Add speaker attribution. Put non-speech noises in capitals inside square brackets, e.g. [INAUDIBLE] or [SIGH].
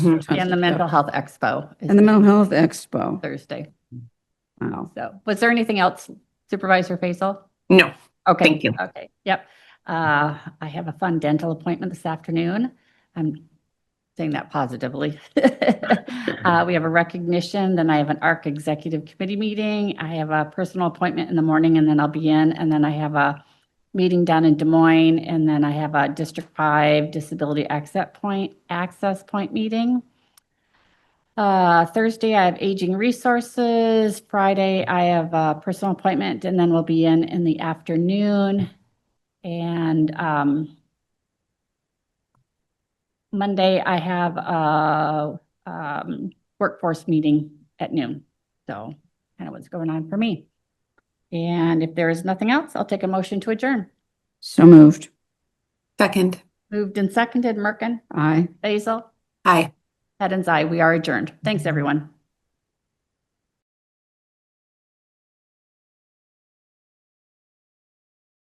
Speaker 1: And the mental health expo
Speaker 2: And the
Speaker 1: is
Speaker 2: Mental Health Expo.
Speaker 1: Thursday.
Speaker 2: Wow.
Speaker 1: So was there anything else Supervisor Faisal?
Speaker 3: No,
Speaker 1: Okay.
Speaker 3: Thank you.
Speaker 1: Okay, yep. Uh, I have a fun dental appointment this afternoon. I'm saying that positively. [LAUGHS] Uh, we have a recognition, then I have an ARC Executive Committee meeting. I have a personal appointment in the morning and then I'll be in. And then I have a meeting down in Des Moines and then I have a District Five Disability Access Point, Access Point meeting. Uh, Thursday, I have aging resources. Friday, I have a personal appointment and then we'll be in in the afternoon. And, um, Monday, I have a, um, workforce meeting at noon. So kind of what's going on for me. And if there is nothing else, I'll take a motion to adjourn.
Speaker 2: So moved.
Speaker 3: second.
Speaker 1: Moved and seconded, Merkin,
Speaker 2: Aye.
Speaker 1: Basil,
Speaker 3: Aye.
Speaker 1: Head and I, we are adjourned. Thanks, everyone.